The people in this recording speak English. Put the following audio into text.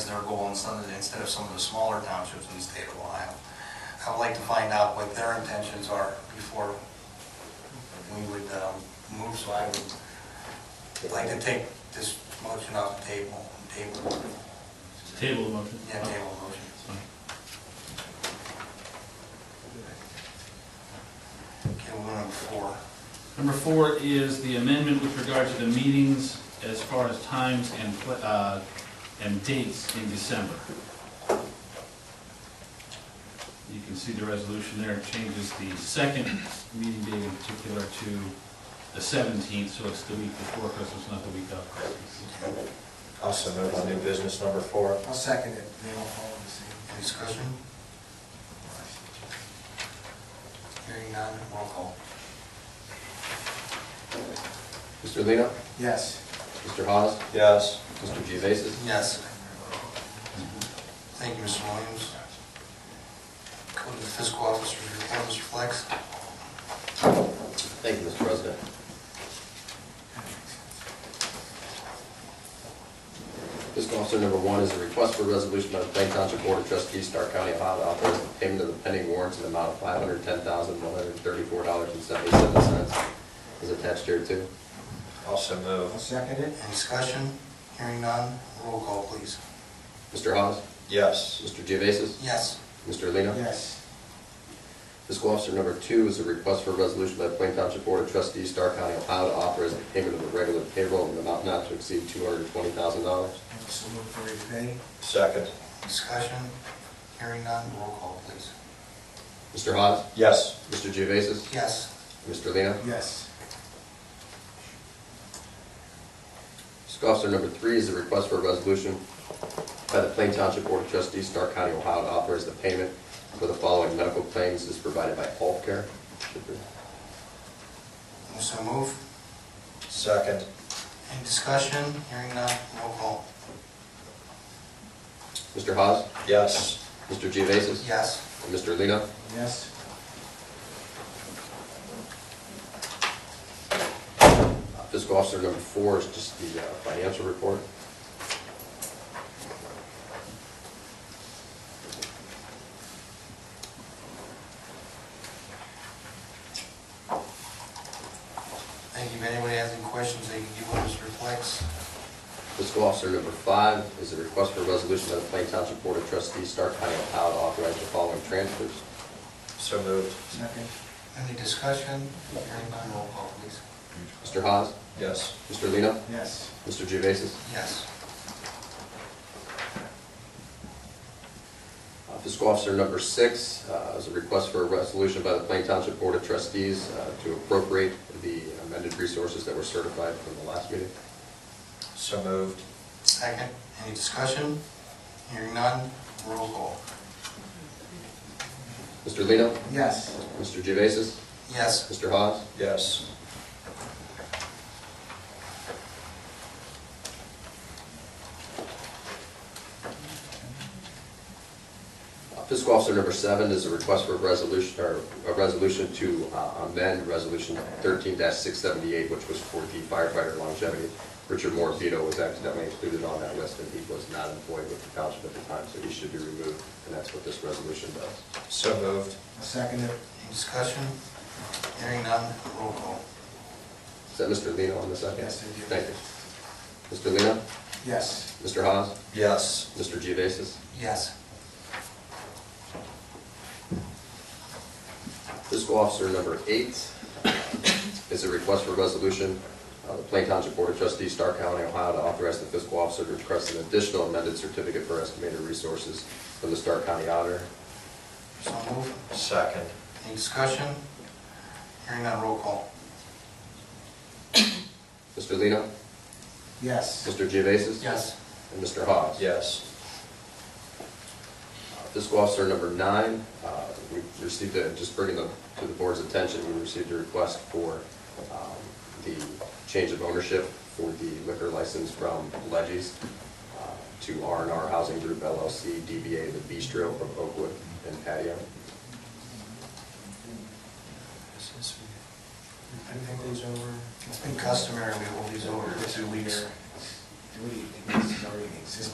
our goal in some, instead of some of the smaller townships in the state of Ohio. I would like to find out what their intentions are before we would um, move, so I would like to take this motion off the table, table, Table motion. yeah, table motion. Okay, we're on four. Number four is the amendment with regard to the meetings as far as times and, pla- uh, and dates in December. You can see the resolution there, It changes the second meeting date in particular to the seventeenth, so it's the week before Christmas, not the week of Christmas. Also move on new business number four. I'll second it. They all follow the same. Any discussion? Hearing none, roll call. Mr. Lino? Yes. Mr. Hawes? Yes. Mr. Geovasis? Yes. Thank you, Mr. Williams. Go to the fiscal officer, report, Mr. Flex. Thank you, Mr. President. Fiscal officer number one is a request for a resolution by the Plain Township Board of Trustees, Stark County, Ohio, to authorize the payment of the pending warrants in the amount of five hundred ten thousand, one hundred thirty-four dollars and seventy-seven cents is attached here too. Also move. second it. Any discussion? Hearing none, roll call, please. Mr. Hawes? Yes. Mr. Geovasis? Yes. Mr. Lino? Yes. Fiscal officer number two is a request for a resolution by the Plain Township Board of Trustees, Stark County, Ohio, to authorize the payment of the regular payroll in an amount not to exceed two hundred twenty thousand dollars. So move for today. Second. Discussion? Hearing none, roll call, please. Mr. Hawes? Yes. Mr. Geovasis? Yes. Mr. Lino? Yes. Fiscal officer number three is a request for a resolution by the Plain Township Board of Trustees, Stark County, Ohio, to authorize the payment for the following medical claims as provided by Health Care. So move. Second. Any discussion? Hearing none, roll call. Mr. Hawes? Yes. Mr. Geovasis? Yes. And Mr. Lino? Yes. Fiscal officer number four is just the uh, financial report. Thank you. If anybody has any questions, they can give us reflects. Fiscal officer number five is a request for a resolution by the Plain Township Board of Trustees, Stark County, Ohio, to authorize the following transfers. So moved. Second. Any discussion? Hearing none, roll call, please. Mr. Haas, Yes. Mr. Lino, Yes. Mr. Gevasis. Yes. Uh, Fiscal officer number six uh, is a request for a resolution by the Plain Township Board of Trustees uh, to appropriate the amended resources that were certified from the last meeting. So moved. Second. Any discussion? Hearing none, roll call. Mr. Lino, Yes. Mr. Gevasis, Yes. Mr. Haas, Yes. Uh, Fiscal Officer number seven is a request for a resolution, or a resolution to uh, amend Resolution thirteen six seventy-eight, which was for the firefighter longevity. Richard Morabito was accidentally included on that list, and he was not employed with the township at the time, so he should be removed, and that's what this resolution does. So moved. Second. Any discussion? Hearing none, roll call. Is that Mr. Lino on the second? Yes, I do. Thank you. Mr. Lino, Yes. Mr. Haas, Yes. Mr. Geovasis. Yes. Fiscal Officer number eight uh, is a request for resolution, uh, the Plain Township Board of Trustees, Stark County, Ohio, to authorize the fiscal officer to request an additional amended certificate for estimated resources from the Stark County Auditor. So move. Second. Any discussion? Hearing none, roll call. Mr. Lino, Yes. Mr. Geovasis? Yes. And Mr. Hawes? Yes. Uh, Fiscal Officer number nine, uh, we received, a- just bringing the- to the board's attention, we received a request for um, the change of ownership for the liquor license from Leggies uh, to r and R Housing Group LLC, DBA The Bistro from Oakwood and Patio. It's been customary, we hold these over two weeks. Do we, think this is already existing?